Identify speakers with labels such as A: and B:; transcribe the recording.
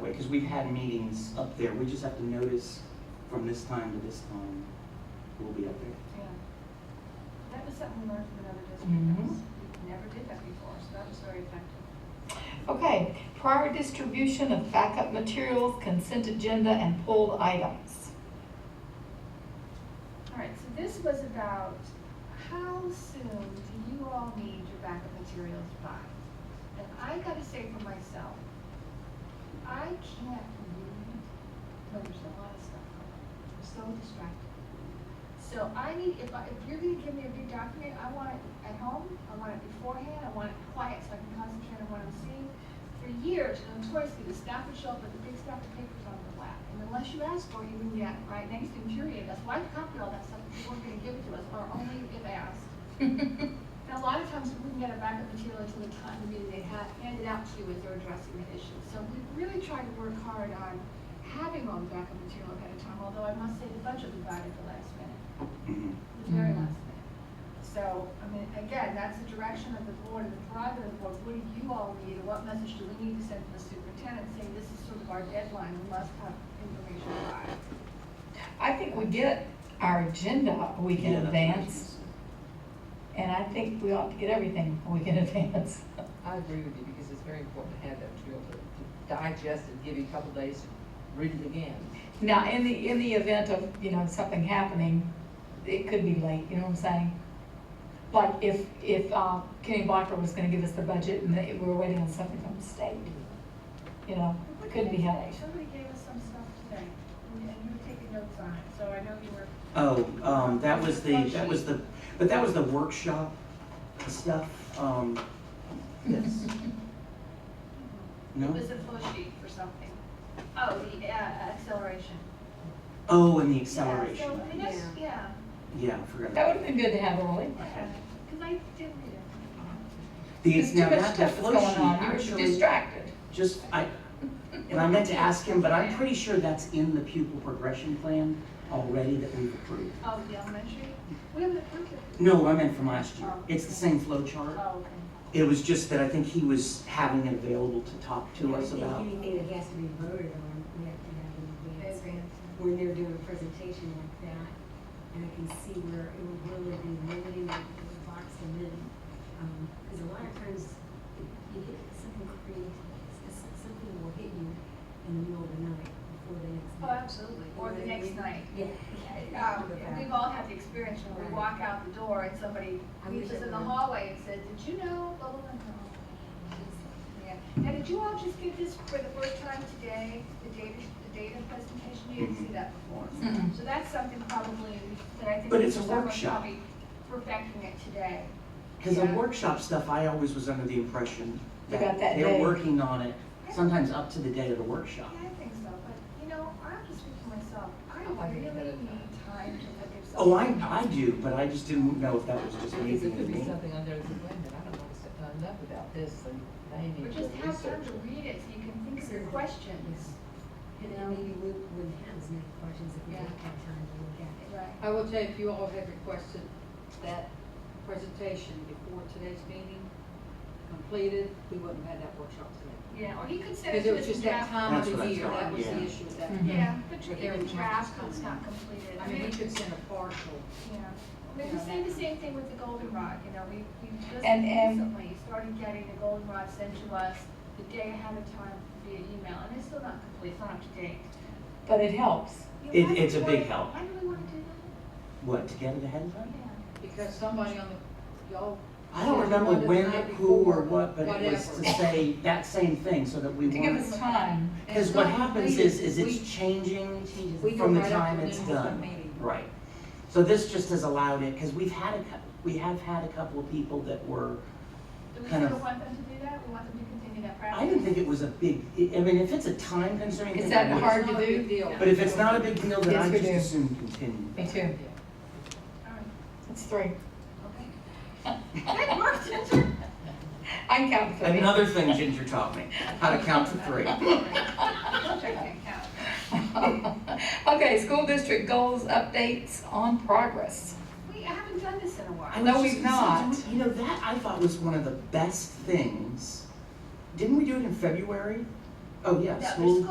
A: way, because we've had meetings up there, we just have to notice from this time to this time, we'll be up there.
B: Yeah. That was something we learned from another district.
C: Mhm.
B: We never did that before, so that was very effective.
C: Okay, prior distribution of backup materials, consent agenda, and pulled items.
B: All right, so this was about how soon do you all need your backup materials by? And I gotta say for myself, I can't read when there's a lot of stuff going on. I'm so distracted. So I need, if I, if you're gonna give me a big document, I want it at home, I want it beforehand, I want it quiet so I can concentrate on what I'm seeing. For years, notoriously, the staff would show up with a big stack of papers on their lap, and unless you asked for it, you wouldn't get it, right? And that used to infuriate us, why copy all that stuff if you weren't gonna give it to us, or only if asked? And a lot of times, we wouldn't get a backup material until the time the meeting they had handed out to you as they're addressing the issue. So we really tried to work hard on having all the backup material ahead of time, although I must say the budget we got at the last minute
A: Mhm.
B: the very
C: Mhm.
B: last minute. So, I mean, again, that's the direction of the board and the prerogative of the board. What do you all need, and what message do we need to send to the superintendent, saying this is sort of our deadline, we must have information by?
C: I think we get our agenda a week in
A: Yeah, that's what I was
C: advance, and I think we ought to get everything a week in advance.
D: I agree with you because it's very important to have that material to to digest and give you a couple days to read it again.
C: Now, in the, in the event of, you know, something happening, it could be late, you know what I'm saying? Like if, if uh, Kenny Blocker was gonna give us the budget and they- we were waiting on something from the state, you know, could be helpful.
B: Somebody gave us some stuff today, and and you were taking notes on it, so I know you were.
A: Oh, um, that was the, that was the, but that was the workshop stuff, um, yes.
B: It
A: No?
B: was a flow sheet for something. Oh, the uh, acceleration.
A: Oh, and the
B: Yeah, so,
A: acceleration,
B: I mean, that's- yeah,
A: yeah, I forgot.
C: That
A: about
C: would have been good to have early.
B: because I did read it.
A: The,
C: There's too
A: now,
C: much
A: not the
C: stuff that's
A: flow
C: going
A: sheet,
C: on. You were
A: actually,
C: Distracted.
A: just, I, and I meant to ask him, but I'm pretty sure that's in the pupil progression plan already that we've approved.
B: Oh, the elementary, we haven't approved it.
A: No, I meant from last year. It's the same flow chart.
B: Oh, okay.
A: It was just that I think he was having it available to talk to us about.
E: Anything that has to be voted on, we have to have in advance. When they're doing a presentation like that, and I can see where it would really be limiting the the box and then, um, because a lot of times you get something creative, s- s- something will hit you in the middle of the night before the next.
B: Oh,
E: night.
B: absolutely, or the next night.
E: Yeah.
B: Um, and We've all had the experience when we walk out the door and somebody meets us in the hallway and says, did you know, blah, blah, blah, blah." Yeah. Now, did you all just get this for the first time today, the data, the data presentation? You didn't see that before.
C: Mhm.
B: So that's something probably that I think.
A: But it's a
B: Mr. Summer's
A: workshop.
B: probably Perfecting it today.
A: Because the
B: Yeah.
A: workshop stuff, I always was under the impression
C: You
A: that
C: got that
A: they're
C: day.
A: working on it, sometimes up to the day of the
B: Yeah,
A: workshop.
B: I think so, but, you know, I'm just speaking for myself. I
D: Oh, I think
B: really
D: it's better than
B: need time to look at
A: Oh,
B: something.
A: I, I do, but I just didn't know if that was just
D: Because there
A: anything to
D: could be
A: me.
D: something on there that's, wait a minute, I don't know what's- uh, enough about this and they
B: Or
D: need to
B: just have
D: research
B: time to
D: it.
B: read it so you can think of your questions.
E: And then maybe we wouldn't have as many questions if we
F: Yeah.
E: had that time to look at it.
B: Right.
F: I will tell you, if you all have requested that presentation before today's meeting completed, we wouldn't have had that workshop today.
B: Yeah, or he could send it
F: Because it
B: to
F: was
B: us in
F: just that
B: draft.
F: time
A: That's
F: of
A: what I
F: the year,
A: thought,
F: that was
A: yeah.
F: the issue at that
C: Mhm.
F: point.
B: Yeah, but
F: But
B: you-
F: there
B: even
F: was no
B: draft
F: time.
B: was not completed.
F: I mean, we could send a partial.
B: Yeah. Maybe we say the same thing with the goldenrod, you know, we, we just
C: And- and-
B: recently started getting the goldenrod sent to us the day ahead of time via email, and it's still not complete, it's not up to date.
C: But it helps.
B: You know,
A: It-
B: why do
A: it's
B: we
A: a big
B: wanna-
A: help.
B: Why do we want to do
A: What, to get it ahead of
B: that?
A: time?
B: Yeah.
F: Because somebody on the, y'all,
A: I don't
F: Yeah,
A: remember
F: one the
A: when,
F: night
A: who, or
F: before,
A: what, but it was to
F: whatever.
A: say that same thing so that we
C: To give
A: weren't.
C: us time.
A: Because
F: It's
A: what
F: not
A: happens
F: completed.
A: is, is
F: We-
A: it's changing
F: we go
A: from the
F: right up
A: time
F: to the
A: it's
F: end of the
A: done.
F: meeting.
A: Right. So this just has allowed it, because we've had a, cou- we have had a couple of people that were,
B: Do we
A: Kind
B: still
A: of-
B: want them to do that? We want them to continue that practice?
A: I didn't think it was a big, I I mean, if it's a time consuming
C: Is
A: thing.
C: that
A: I would-
C: hard
F: it's
C: to
F: not a
C: do?
F: big deal.
A: But if it's not a big deal, then
C: Yes,
A: I
C: we
A: just
C: do.
A: assume continue.
C: Me too.
B: All right,
C: It's three.
B: okay. That
C: I
B: worked, didn't it?
C: can count three.
A: Another thing Ginger taught me, how to count to three.
B: Which I can't count.
C: Okay, school district goals, updates on progress.
B: We haven't done this in a
A: I
B: while.
C: No,
A: was
C: we've
A: just gonna say,
C: not.
A: don't- You know, that I thought was one of the best things. Didn't we do it in February? Oh, yeah,
B: Yeah, there's
A: school